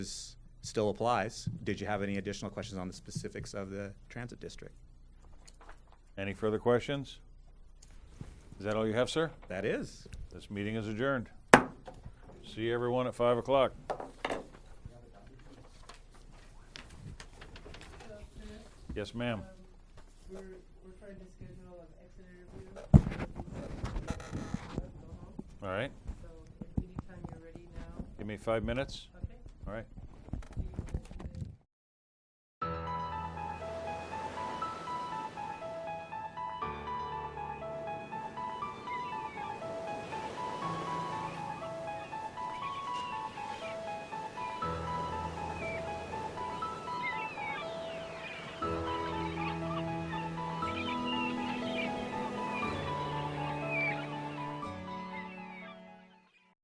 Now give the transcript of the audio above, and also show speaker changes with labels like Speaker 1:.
Speaker 1: is, still applies. Did you have any additional questions on the specifics of the transit district?
Speaker 2: Any further questions? Is that all you have, sir?
Speaker 1: That is.
Speaker 2: This meeting is adjourned. See everyone at five o'clock. Yes, ma'am.
Speaker 3: We're, we're trying to schedule an exit interview.
Speaker 2: All right.
Speaker 3: So if anytime you're ready now,
Speaker 2: Give me five minutes.
Speaker 3: okay?
Speaker 2: All right.